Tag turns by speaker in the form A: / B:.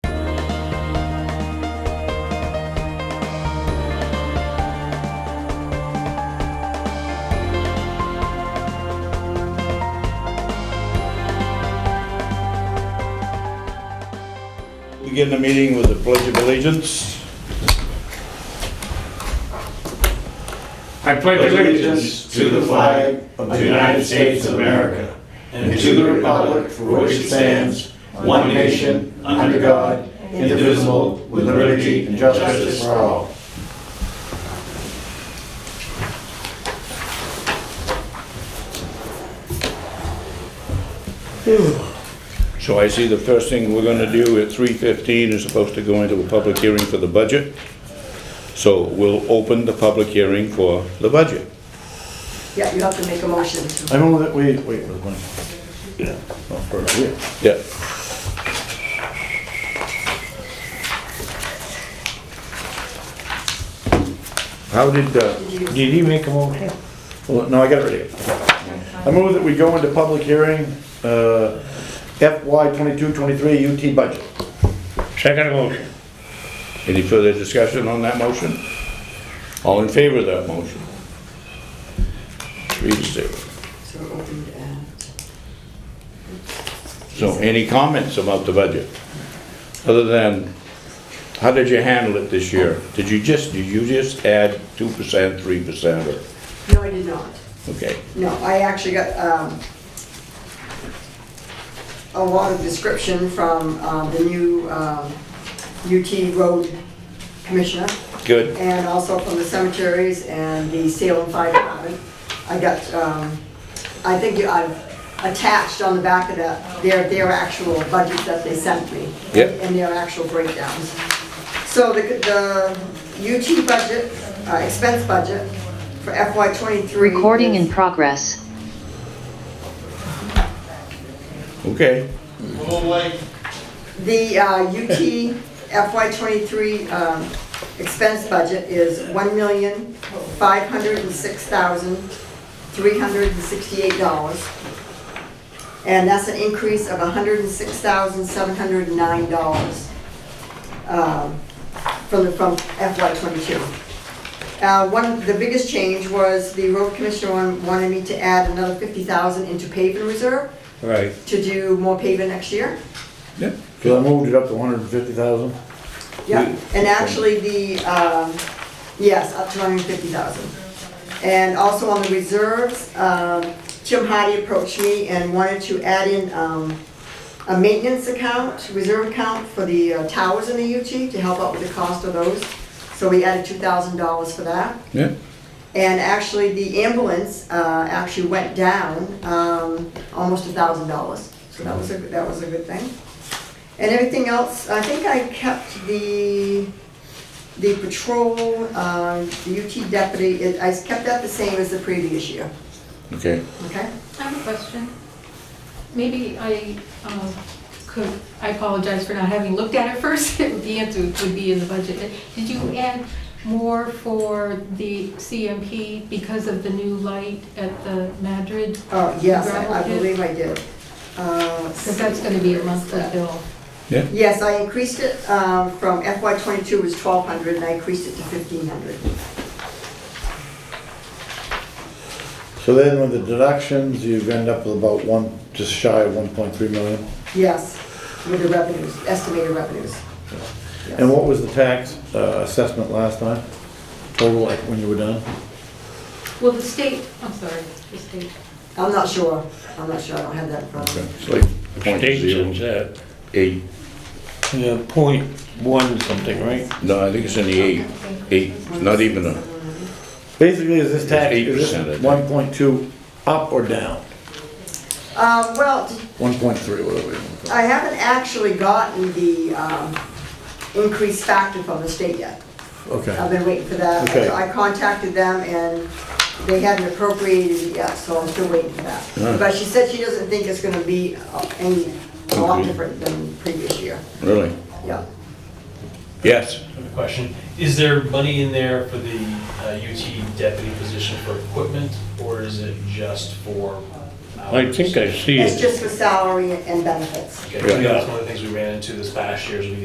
A: Begin the meeting with the pledge of allegiance.
B: I pledge allegiance
C: allegiance to the flag of the United States of America and to the republic for which it stands, one nation, under God, indivisible, with liberty and justice for all.
A: So I see the first thing we're gonna do at 3:15 is supposed to go into a public hearing for the budget. So we'll open the public hearing for the budget.
D: Yeah, you have to make a motion to,
C: I move that we, wait, we're going.
A: Yeah. How did, uh,
C: Did he make a motion? Well, no, I got it ready. I move that we go into public hearing, uh, FY twenty-two, twenty-three UT budget.
B: Second motion.
A: any further discussion on that motion? All in favor of that motion? Three to zero.
D: so open to add.
A: So any comments about the budget? Other than, how did you handle it this year? Did you just, did you just add two percent, three percent, or,
D: No, I did not.
A: okay?
D: No, I actually got, um, a lot of description from, um, the new, um, UT road commissioner
A: Good,
D: and also from the cemeteries and the Salem Fire Department. I got, um, I think you- I've attached on the back of the, their, their actual budgets that they sent me.
A: Yep.
D: And their actual breakdowns. So the, the UT budget, uh, expense budget for FY twenty-three.
E: Recording
D: is-
E: in progress.
A: okay.
D: The uh, UT FY '23 um, expense budget is $1,506,368. And that's an increase of $106,709 um, from the, from FY '22. Uh, One, the biggest change was the road commissioner wan- wanted me to add another 50,000 into paving reserve
A: Right.
D: to do more paving next year.
A: Yeah,
C: Cause I moved it up to hundred and fifty thousand.
D: Yeah, and actually the, um, yes, up to 150,000. And also on the reserves, um, Jim Hardy approached me and wanted to add in um, a maintenance account, reserve account for the uh, towers in the UT to help out with the cost of those. So we added $2,000 for that.
A: yeah,
D: And actually, the ambulance uh, actually went down um, almost $1,000. So that was a, that was a good thing. And everything else, I think I kept the, the patrol, uh, the UT deputy, it- I kept that the same as the previous year,
A: okay.
D: okay?
F: I have a question. Maybe I um, could, I apologize for not having looked at it first. The answer would be in the budget. Did you add more for the CMP because of the new light at the Madrid?
D: Oh, yes, I I
F: Gravel pit?
D: believe I did. Uh, let's
F: Because
D: see.
F: that's going to be a monthly bill.
D: Yes, I increased it um, from FY '22 was 1,200, and I increased it to 1,500.
C: So then with the deductions, you end up with about one, just shy of one point three million.
D: Yes, with the revenues, estimated revenues. Yes.
C: And what was the tax, uh, assessment last time? Total, like, when you were done?
F: Well, the state, I'm sorry, the state.
D: I'm not sure, I'm not sure, I don't have that in front of me.
A: It's like point zero
B: that.
A: eight,
B: Yeah, point one something, right?
A: no, I think it's in the eight, eight, not even a,
C: Basically, is this tax,
A: It's
C: is
A: 8%, I
C: this
A: think.
C: one point two up or down?
D: Um, Well,
C: One point three, whatever. you want to call
D: I haven't actually gotten the um, increase factor from the state yet.
C: it. Okay.
D: I've been waiting for that.
C: Okay.
D: I contacted them and they hadn't appropriated it yet, so I'm still waiting for that. But she said she doesn't think it's gonna be uh, any, a lot
A: Okay.
D: different than previous year.
A: really?
D: Yeah.
A: Yes,
G: I have a question. Is there money in there for the uh, UT deputy position for equipment, or is it just for hours?
B: I think I see it.
D: It's just for salary and benefits.
G: Okay,
A: Yeah.
G: that's one of the things we ran into this past year, is we